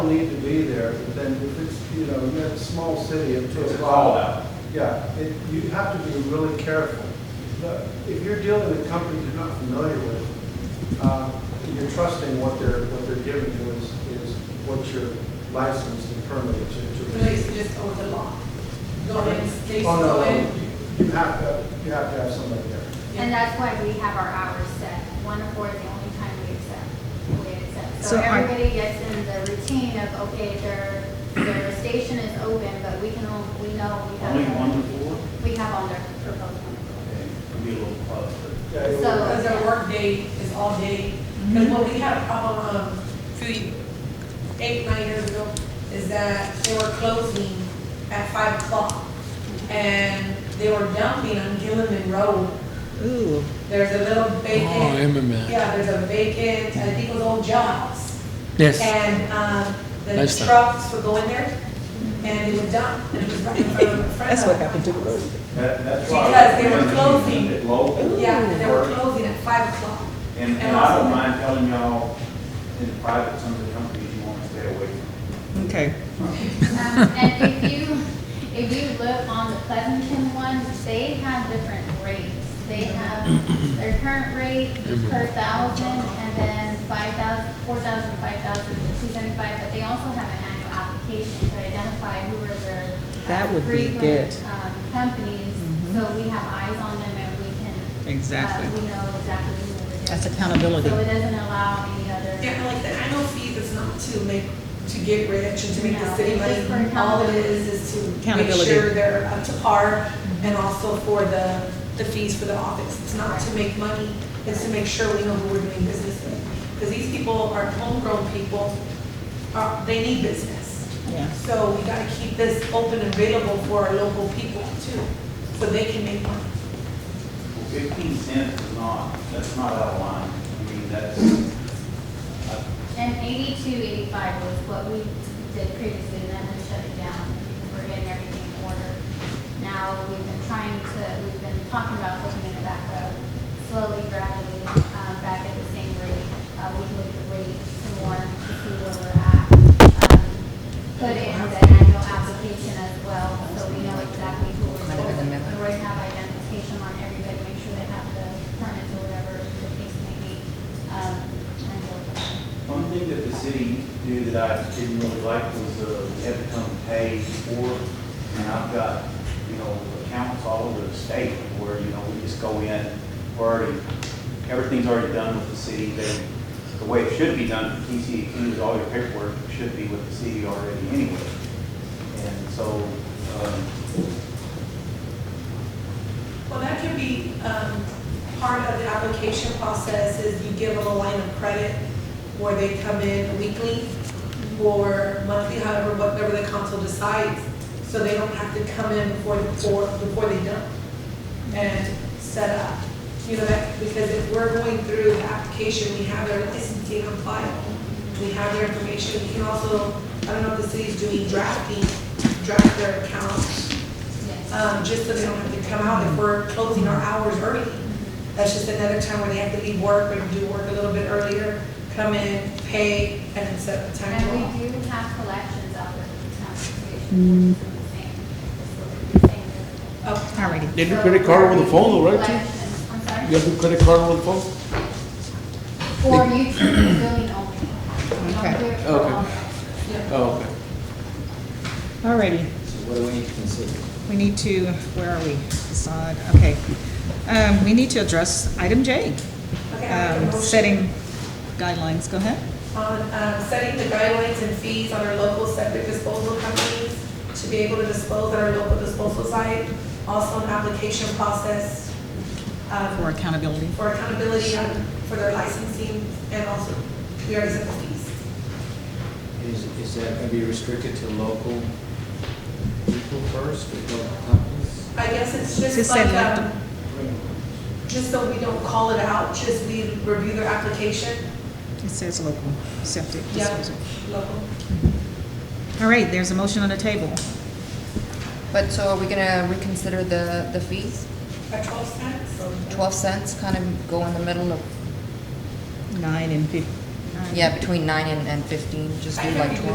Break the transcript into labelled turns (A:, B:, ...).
A: need to be there, but then if it's, you know, you're a small city at two
B: It's a
A: o'clock.
B: call-out.
A: Yeah, it, you have to be really careful. The- If you're dealing with companies you're not familiar with, uh, you're trusting what they're, what they're giving you is, is what your license and permit to. to-
C: Police just over the law. Go in, they
A: Oh, no,
C: go
A: no,
C: in.
A: you- you have to, you have to have somebody there.
D: And that's why we have our hours set, one to four is the only time we accept, we accept. So
E: So are-
D: everybody gets in the routine of, okay, their, their station is open, but we can, only- we know we have.
B: Only one to four?
D: We have on their proposed one.
B: Okay, it'll be a little close, but
A: Yeah, it
D: So-
C: Because their work day is all day. Because
E: Mm-hmm.
C: what we had a problem, um, three, eight, nine years ago, is that they were closing at five o'clock. And they were dumping on Gilliman Road.
E: Ooh,
C: There's a little
F: Oh,
C: vacant,
F: Emmerman.
C: yeah, there's a vacant, I think it was old jobs.
F: Yes.
C: And, um, the
F: Nice time.
C: trucks would go in there and they would dump. and it was right in front of-
E: that's what happened to the road.
B: that, that's why.
C: Because they were
B: we're keeping
C: closing.
B: it Local.
C: Yeah, and they were
B: work.
C: closing at five o'clock.
B: And, and I don't mind telling y'all, in private, some of the companies you want to stay away from.
E: Okay.
D: Um, And if you, if you look on the Pleasanton one, they have different rates. They have their current rate per thousand, and then five thousand, four thousand, five thousand, two seventy-five, but they also have an annual application to identify who are their. uh,
E: That would be
D: frequent,
E: good. Mm-hmm.
D: um, Companies, so we have eyes on them and we can. uh,
E: Exactly.
D: We know exactly who we're.
E: That's accountability.
D: So it doesn't allow any other.
C: Yeah, like the annual fees is not to make, to get rich and to make the
D: No,
C: city
D: it's just
C: money.
D: for
C: All it is, is to make
E: Accountability.
C: sure they're up to par
D: Mm-hmm.
C: and also for the, the fees for the office. It's not to make money, it's to make sure we know who we're doing business with. Because these people are homegrown people, uh, they need business.
E: Yeah.
C: So we gotta keep this open and available for our local people too, so they can make money.
B: Well, Fifteen cents is not, that's not out of line. I mean, that's, I-
D: And eighty-two, eighty-five was what we did previously, and then we shut it down, because we're getting everything in order. Now, we've been trying to, we've been talking about looking at that road, slowly, gradually, um, back at the same rate. Uh, we look at rates some more to see where we're at. Um, Put in the annual application as well, so we know exactly who we're for. And we're gonna have identification on everybody, make sure they have the permits or whatever the case may be. Um, and we'll-
B: One thing that the city used to do that I didn't really like was, uh, we had to come pay for, it. and I've got, you know, accounts all over the state where, you know, we just go in, we're already, everything's already done with the city, they, the way it should be done, for TCEQ is all your paperwork should be with the city already anyway. And so, um,
C: Well, that can be, um, part of the application process is you give them a line of credit where they come in weekly or monthly, however, whatever the council decides, so they don't have to come in before, before, before they dump and set up. You know, that, because if we're going through the application, we have their licensing on file, we have their information, we can also, I don't know if the city's doing drafting, draft their accounts um, just so they don't have to come out if we're closing our hours early. That's just another time where they have to leave work or do work a little bit earlier, come in, pay, and then set the time
D: And
C: off.
D: we do have collections out there for the town station, which is the same, it's what we were saying
C: Oh,
D: earlier.
E: Alrighty.
F: They do
D: So
F: credit card with the phone, though, right? Chief?
D: Collections, I'm sorry?
F: You have to credit card with the phone?
D: For you to billing only. We don't
E: Okay.
D: do it for
F: Okay.
D: all.
C: yeah.
F: Oh, okay.
E: Alrighty.
G: So what do we need to consider?
E: We need to, where are we? Facade, okay. Um, we need to address item J,
C: Okay, I make a
E: um,
C: motion
E: setting guidelines. Go ahead.
C: On, um, setting the guidelines and fees on our local septic disposal companies to be able to dispose at our local disposal site. Also an application process,
E: For
C: um,
E: accountability.
C: for accountability um, for their licensing and also, we already said the fees.
G: Is, is that going to be restricted to local people first, or local companies?
C: I guess it's
E: Just
C: just
E: said
C: like,
E: left.
C: um, just so we don't call it out, just we review their application.
E: It says local septic
C: Yeah.
E: disposal.
C: Local.
E: All right, there's a motion on the table.
H: But so are we gonna reconsider the, the fees?
C: At twelve cents, so.
H: Twelve cents kind of go in the middle of,
E: Nine and fif- nine.
H: yeah, between nine and, and fifteen, just do
C: I
H: like
C: think
H: twelve?